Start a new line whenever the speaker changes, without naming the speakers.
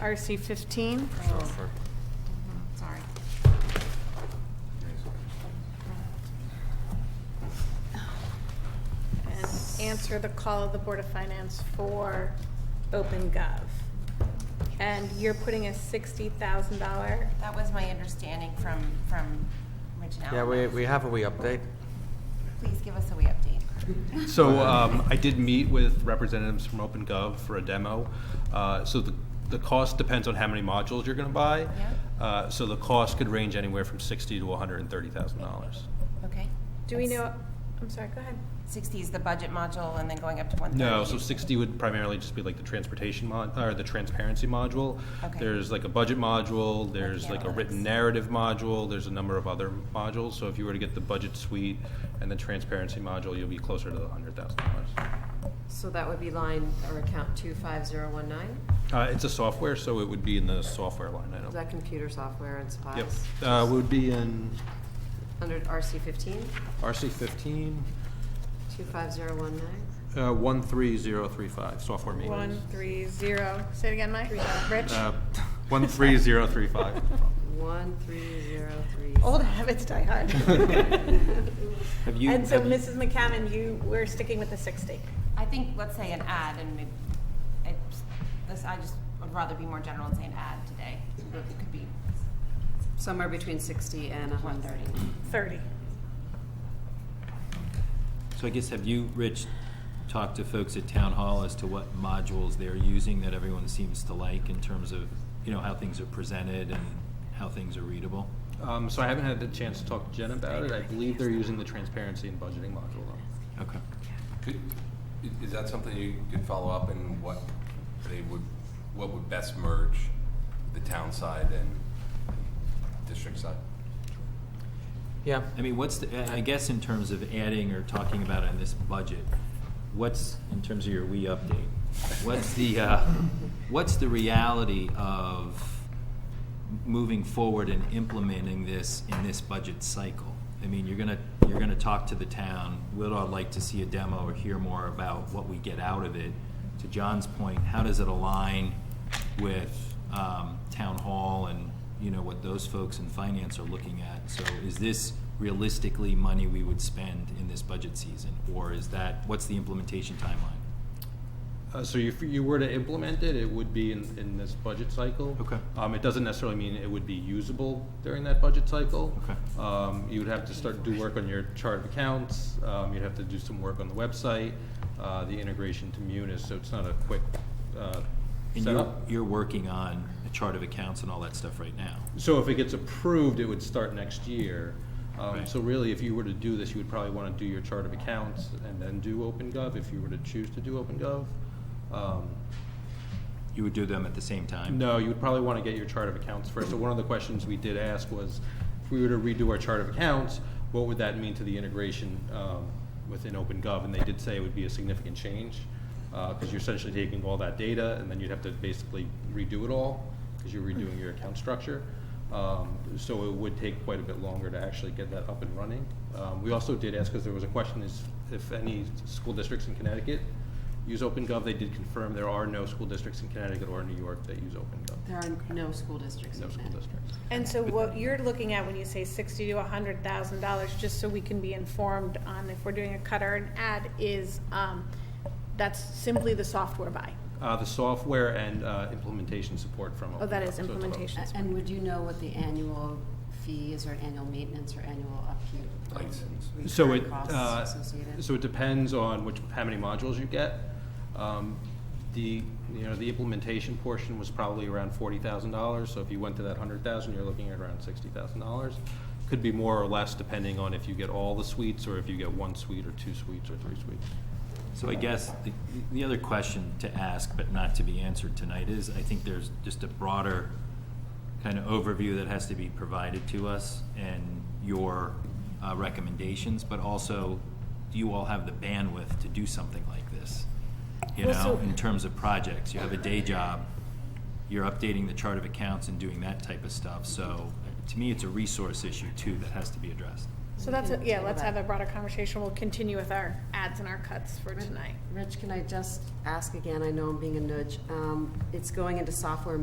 RC 15.
Sure.
Mhm, Sorry. And answer the call of the Board of Finance for OpenGov. And you're putting a $60,000,
That was my understanding from, from Rich and Alan.
Yeah, we, we have a wee update.
Please give us a wee update.
So um, I did meet with representatives from OpenGov for a demo. Uh, So the, the cost depends on how many modules you're going to buy.
Yeah.
Uh, So the cost could range anywhere from sixty to $130,000.
Okay?
do we
That's-
know, I'm sorry, go ahead.
Sixty is the budget module and then going up to one thirty?
No, so 60 would primarily just be like the transportation mod, or the transparency module.
Okay.
There's like a budget module, there's like a
analytics.
written narrative module, there's a number of other modules. So if you were to get the budget suite and the transparency module, you'll be closer to the $100,000.
So that would be line or account two five zero one nine?
Uh, It's a software, so it would be in the software line
Is
item.
that computer software and
Yep,
supplies?
Uh, would be in
Under RC fifteen,
RC fifteen,
two five zero one nine?
uh, one three zero three five, software
One,
maintenance.
three, zero. Say it again, Mike. Rich?
Uh, One three zero three five.
One three zero three.
Old habits die hard.
Have you?
And so,
have you-
Mrs. McCammon, you, we're sticking with the 60.
I think, let's say an ad and it, it's, this, I just would rather be more general and say an ad today. It could be
Somewhere between sixty and a
one
hundred.
thirty.
30.
So I guess, have you, Rich, talked to folks at Town Hall as to what modules they're using that everyone seems to like in terms of, you know, how things are presented and how things are readable?
Um, so I haven't had the chance to talk to Jen about it. I believe they're using the transparency and budgeting module though.
Okay.
Could, i- is that something you could follow up and what they would, what would best merge the town side and district side?
Yeah.
I mean, what's, the I I guess in terms of adding or talking about in this budget, what's, in terms of your we update, what's the, uh, what's the reality of moving forward and implementing this in this budget cycle? I mean, you're gonna, you're gonna talk to the town, we'd all like to see a demo or hear more about what we get out of it. To John's point, how does it align with um, town hall and, you know, what those folks in finance are looking at. So is this realistically money we would spend in this budget season? Or is that, what's the implementation timeline?
Uh, so if you were to implement it, it would be in, in this budget cycle.
Okay.
Um, it doesn't necessarily mean it would be usable during that budget cycle.
Okay.
Um, you would have to start, do work on your chart of accounts, um, you'd have to do some work on the website, uh, the integration to Munis, so it's not a quick, uh,
And you're,
setup.
you're working on a chart of accounts and all that stuff right now.
So if it gets approved, it would start next year. Um,
Right.
so really, if you were to do this, you would probably wanna do your chart of accounts and then do OpenGov, if you were to choose to do OpenGov. Um,
You would do them at the same time?
No, you would probably want to get your chart of accounts first. So one of the questions we did ask was, if we were to redo our chart of accounts, what would that mean to the integration um, within OpenGov? And they did say it would be a significant change, because you're essentially taking all that data, and then you'd have to basically redo it all, because you're redoing your account structure. Um, So it would take quite a bit longer to actually get that up and running. Um, We also did ask, because there was a question, is if any school districts in Connecticut use OpenGov, they did confirm there are no school districts in Connecticut or New York that use OpenGov.
There are no school districts in
No school
Connecticut.
districts.
And so what you're looking at when you say sixty to a hundred thousand dollars, just so we can be informed on if we're doing a cut or an ad, is, um, that's simply the software buy.
Uh, the software and, uh, implementation support from OpenGov.
Oh, that is
So it's about-
implementation.
A- And would you know what the annual fee is, or annual maintenance, or annual upkeep? or
License.
So
recurring
it,
costs
uh,
associated?
so it depends on which, how many modules you get. Um, The, you know, the implementation portion was probably around forty thousand dollars, so if you went to that hundred thousand, you're looking at around sixty thousand dollars. Could be more or less depending on if you get all the suites, or if you get one suite, or two suites, or three suites.
So I guess the, the other question to ask, but not to be answered tonight, is I think there's just a broader kind of overview that has to be provided to us and your uh, recommendations, but also, do you all have the bandwidth to do something like this? You
Well, so-
know, in terms of projects, you have a day job, you're updating the chart of accounts and doing that type of stuff, so uh, to me, it's a resource issue too that has to be addressed.
So that's, a- yeah,
Table
let's
that.
have a broader conversation. We'll continue with our ads and our cuts for tonight.
Rich, can I just ask again, I know I'm being a nudge, um, it's going into software